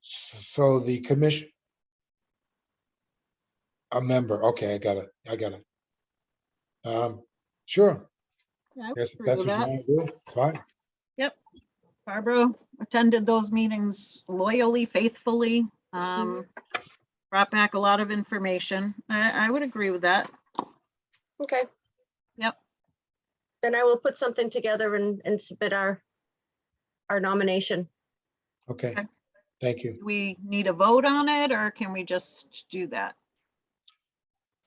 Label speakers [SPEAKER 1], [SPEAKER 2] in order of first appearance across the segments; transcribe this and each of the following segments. [SPEAKER 1] So the commission. A member, okay, I got it, I got it. Um, sure,
[SPEAKER 2] Yeah, I
[SPEAKER 1] yes,
[SPEAKER 2] agree
[SPEAKER 1] that's
[SPEAKER 2] with
[SPEAKER 1] what you
[SPEAKER 2] that.
[SPEAKER 1] want to do, it's fine.
[SPEAKER 2] Barbara attended those meetings loyally, faithfully, um, brought back a lot of information. I, I would agree with that.
[SPEAKER 3] Okay.
[SPEAKER 2] Yep.
[SPEAKER 3] Then I will put something together and, and submit our, our nomination.
[SPEAKER 1] Okay,
[SPEAKER 2] Okay.
[SPEAKER 1] thank you.
[SPEAKER 2] Do We need a vote on it or can we just do that?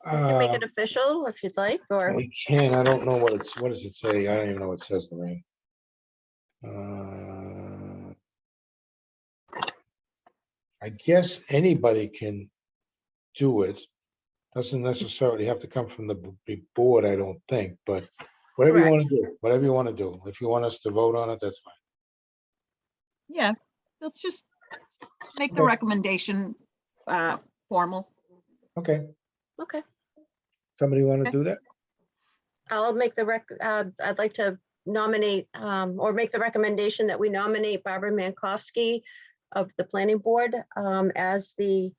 [SPEAKER 3] Make
[SPEAKER 1] Uh,
[SPEAKER 3] it official if you'd like, or
[SPEAKER 1] We can, I don't know what it's, what does it say? I don't even know what it says, Lorraine. Uh, I guess anybody can do it. Doesn't necessarily have to come from the b- big board, I don't think, but whatever you want to do, whatever you want to do. If you want us to vote on it, that's fine.
[SPEAKER 2] Yeah, let's just make the
[SPEAKER 1] Okay.
[SPEAKER 2] recommendation, uh, formal.
[SPEAKER 1] Okay,
[SPEAKER 3] okay,
[SPEAKER 1] somebody want to
[SPEAKER 2] Okay.
[SPEAKER 1] do that?
[SPEAKER 3] I'll make the rec, uh, I'd like to nominate, um, or make the recommendation that we nominate Barbara Mankowski of the planning board, um, as the,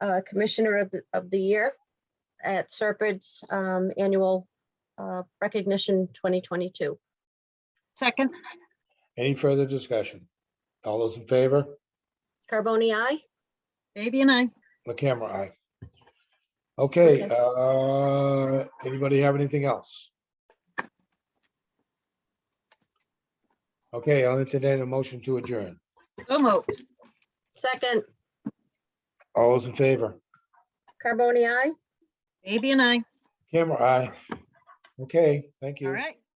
[SPEAKER 3] uh, commissioner of, the of the year at Serpents, um, annual, uh, recognition twenty twenty-two.
[SPEAKER 2] Second,
[SPEAKER 1] Any further discussion? All those in favor?
[SPEAKER 3] Carboni, I,
[SPEAKER 2] Baby and I,
[SPEAKER 1] The camera eye. Okay,
[SPEAKER 3] Okay.
[SPEAKER 1] uh, anybody have anything else? Okay, I'll entertain a motion to adjourn.
[SPEAKER 2] so moved.
[SPEAKER 3] second,
[SPEAKER 1] All those in favor?
[SPEAKER 3] Carboni, I.
[SPEAKER 2] Baby and I,
[SPEAKER 1] Camera eye. Okay, thank you.
[SPEAKER 2] all right.